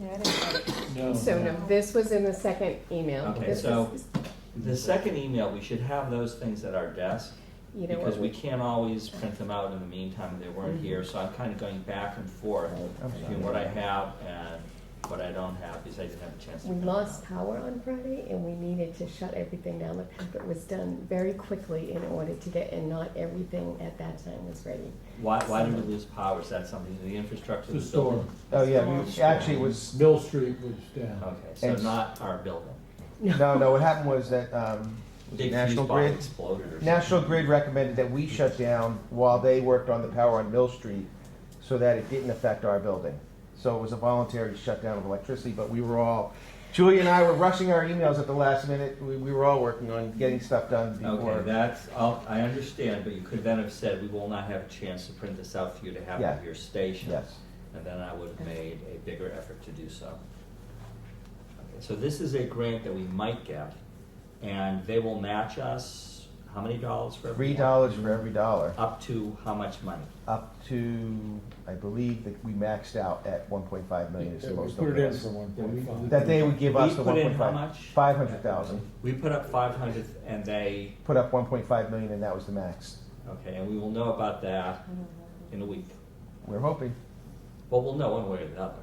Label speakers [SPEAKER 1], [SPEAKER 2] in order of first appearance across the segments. [SPEAKER 1] Yeah, I didn't know.
[SPEAKER 2] No.
[SPEAKER 1] So no, this was in the second email.
[SPEAKER 3] Okay,
[SPEAKER 1] This
[SPEAKER 3] so-
[SPEAKER 1] was-
[SPEAKER 3] The second email, we should have those things at our desk,
[SPEAKER 1] You know
[SPEAKER 3] because
[SPEAKER 1] what? Mm-hmm.
[SPEAKER 3] we can't always print them out in the meantime, they weren't here, so I'm kinda going back and forth between what I have and what I don't have, because I didn't have a chance to.
[SPEAKER 1] We
[SPEAKER 3] print them
[SPEAKER 1] lost
[SPEAKER 3] out.
[SPEAKER 1] power on Friday and we needed to shut everything down. The packet was done very quickly in order to get, and not everything at that time was ready.
[SPEAKER 3] Why, why did we lose power, is that something, the infrastructure of
[SPEAKER 2] The
[SPEAKER 3] the building?
[SPEAKER 2] storm.
[SPEAKER 4] Oh, yeah, we, actually it was,
[SPEAKER 2] Mill Street was down.
[SPEAKER 3] Okay, so
[SPEAKER 4] It's-
[SPEAKER 3] not our building.
[SPEAKER 4] no, no, what happened was that, um, was it
[SPEAKER 3] Big fuse
[SPEAKER 4] National
[SPEAKER 3] box
[SPEAKER 4] Grid,
[SPEAKER 3] exploded or something.
[SPEAKER 4] National Grid recommended that we shut down while they worked on the power on Mill Street so that it didn't affect our building. So it was a voluntary shutdown of electricity, but we were all, Julie and I were rushing our emails at the last minute. We, we were all working on getting stuff done
[SPEAKER 3] Okay,
[SPEAKER 4] before.
[SPEAKER 3] that's, I'll- I understand, but you could then have said, we will not have a chance to print this out for you to have
[SPEAKER 4] Yeah.
[SPEAKER 3] at your station.
[SPEAKER 4] Yes.
[SPEAKER 3] And then I would have made a bigger effort to do so. Okay, So this is a grant that we might get, and they will match us, how many dollars for every?
[SPEAKER 4] Three dollars for every dollar,
[SPEAKER 3] Up to how much money?
[SPEAKER 4] up to, I believe that we maxed out at one point five million is
[SPEAKER 2] Yeah,
[SPEAKER 4] the
[SPEAKER 2] we
[SPEAKER 4] most.
[SPEAKER 2] put it
[SPEAKER 4] they'll
[SPEAKER 2] in
[SPEAKER 4] give us.
[SPEAKER 2] for one
[SPEAKER 3] Yeah, we-
[SPEAKER 2] point five.
[SPEAKER 4] That they would give us
[SPEAKER 3] We
[SPEAKER 4] the
[SPEAKER 3] put
[SPEAKER 4] one
[SPEAKER 3] in
[SPEAKER 4] point
[SPEAKER 3] how
[SPEAKER 4] five,
[SPEAKER 3] much?
[SPEAKER 4] five hundred thousand.
[SPEAKER 3] We put up five hundred and they,
[SPEAKER 4] Put up one point five million and that was the max.
[SPEAKER 3] okay, and we will know about that in a week.
[SPEAKER 4] We're hoping.
[SPEAKER 3] Well, we'll know one way or the other.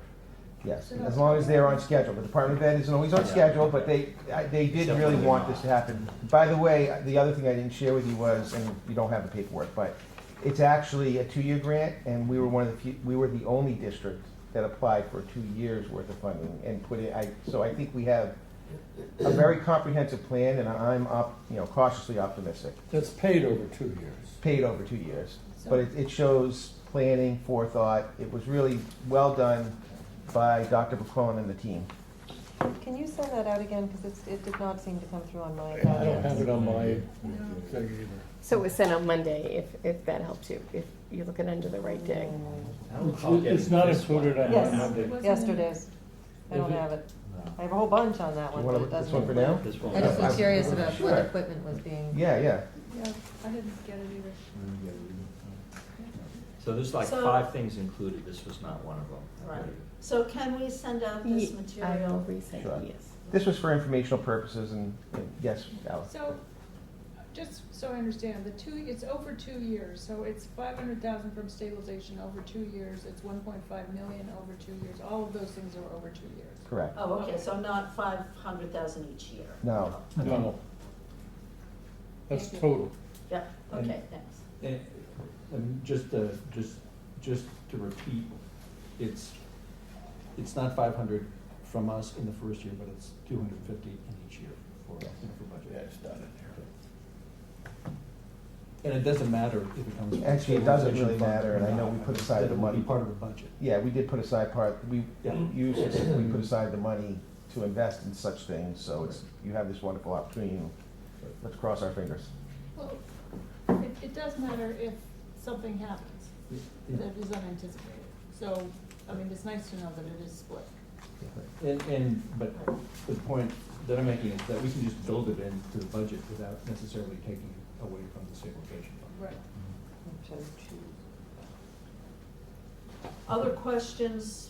[SPEAKER 4] Yes, as long as they're on schedule. The Department of Ed isn't always on
[SPEAKER 3] Yeah.
[SPEAKER 4] schedule, but they, I- they did really
[SPEAKER 3] Definitely
[SPEAKER 4] want
[SPEAKER 3] not.
[SPEAKER 4] this to happen. By the way, the other thing I didn't share with you was, and you don't have the paperwork, but it's actually a two-year grant, and we were one of the few, we were the only district that applied for two years' worth of funding and put it, I, so I think we have a very comprehensive plan, and I'm up, you know, cautiously optimistic.
[SPEAKER 2] That's paid over two years.
[SPEAKER 4] Paid over two years, but it, it shows planning, forethought. It was really well done by Dr. McClellan and the team.
[SPEAKER 5] Can you send that out again, because it did not seem to come through on my
[SPEAKER 2] I don't have
[SPEAKER 5] end.
[SPEAKER 2] it on my thing either.
[SPEAKER 1] So it was sent on Monday, if, if that helps you, if you're looking under the right day.
[SPEAKER 3] I don't recall
[SPEAKER 2] It's- It's
[SPEAKER 3] getting
[SPEAKER 2] not
[SPEAKER 3] this one.
[SPEAKER 2] included on
[SPEAKER 5] Yes.
[SPEAKER 2] my Monday.
[SPEAKER 5] Yesterday's. I don't
[SPEAKER 2] Is it?
[SPEAKER 5] have it.
[SPEAKER 3] No.
[SPEAKER 5] I have a whole bunch on that
[SPEAKER 4] You
[SPEAKER 5] one,
[SPEAKER 4] wanna
[SPEAKER 5] but
[SPEAKER 4] look
[SPEAKER 5] it
[SPEAKER 4] at this
[SPEAKER 5] doesn't.
[SPEAKER 4] one for now? Uh,
[SPEAKER 5] I
[SPEAKER 3] This
[SPEAKER 5] just was
[SPEAKER 4] I'm-
[SPEAKER 3] one.
[SPEAKER 5] curious about
[SPEAKER 4] Sure.
[SPEAKER 5] what equipment was being,
[SPEAKER 4] Yeah, yeah.
[SPEAKER 6] Yeah, I didn't get it either.
[SPEAKER 3] So there's like
[SPEAKER 7] So-
[SPEAKER 3] five things included, this was not one of them. I
[SPEAKER 7] Right.
[SPEAKER 3] believe.
[SPEAKER 7] So can we send out this
[SPEAKER 1] Ye- I will
[SPEAKER 7] material?
[SPEAKER 1] resend,
[SPEAKER 4] Sure.
[SPEAKER 1] yes.
[SPEAKER 4] This was for informational purposes and, and yes, Alice.
[SPEAKER 6] So, just so I understand, the two, it's over two years, so it's five hundred thousand from stabilization over two years, it's one point five million over two years, all of those things are over two years.
[SPEAKER 4] Correct.
[SPEAKER 7] Oh, okay, so not five hundred thousand each year?
[SPEAKER 4] No.
[SPEAKER 2] No. That's total.
[SPEAKER 7] Yeah, okay, thanks.
[SPEAKER 8] And, and just to, just, just to repeat, it's, it's not five hundred from us in the first year, but it's two hundred and fifty in each year for, you know, for budget.
[SPEAKER 2] not in there.
[SPEAKER 8] And it doesn't matter if it comes. from
[SPEAKER 4] Actually, it doesn't really
[SPEAKER 8] stabilization fund
[SPEAKER 4] matter,
[SPEAKER 8] or
[SPEAKER 4] and I know
[SPEAKER 8] not.
[SPEAKER 4] we put aside
[SPEAKER 8] That
[SPEAKER 4] the
[SPEAKER 8] it will
[SPEAKER 4] money.
[SPEAKER 8] be part of the budget.
[SPEAKER 4] Yeah, we did put aside part, we
[SPEAKER 8] Yeah.
[SPEAKER 4] used, we put aside the money to invest in such things, so it's, you have this wonderful opportunity. Let's cross our fingers.
[SPEAKER 6] Well, it, it does matter if something happens that is unanticipated, so, I mean, it's nice to know that it is split.
[SPEAKER 8] And, and, but the point that I'm making is that we can just build it into the budget without necessarily taking away from the stabilization fund.
[SPEAKER 6] Right.
[SPEAKER 5] so two,
[SPEAKER 7] Other questions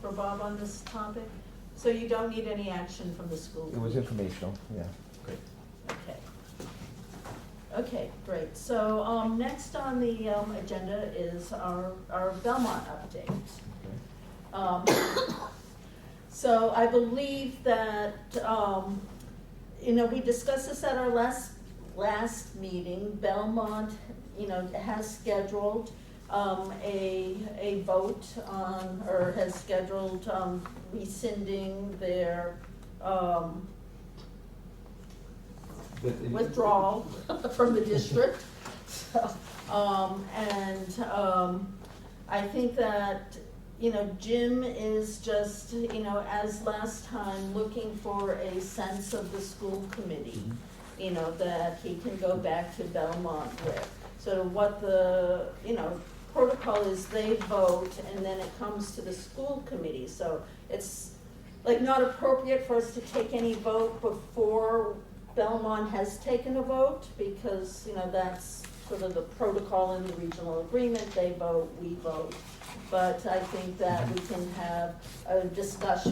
[SPEAKER 7] for Bob on this topic? So you don't need any action from the school?
[SPEAKER 4] It was
[SPEAKER 7] committee?
[SPEAKER 4] informational, yeah.
[SPEAKER 8] Great.
[SPEAKER 7] Okay. Okay, great. So, um, next on the, um, agenda is our, our Belmont update. Um, so I believe that, um, you know, we discussed this at our last, last meeting. Belmont, you know, has scheduled, um, a, a vote on, or has scheduled, um, rescinding their, um,
[SPEAKER 8] But it-
[SPEAKER 7] withdrawal from the district. So, Um, and, um, I think that, you know, Jim is just, you know, as last time, looking for a sense of the school committee. You know, that he can go back to Belmont with. So what the, you know, protocol is they vote and then it comes to the school committee. So it's like not appropriate for us to take any vote before Belmont has taken a vote because, you know, that's sort of the protocol in the regional agreement, they vote, we vote. but I think that we can have a discussion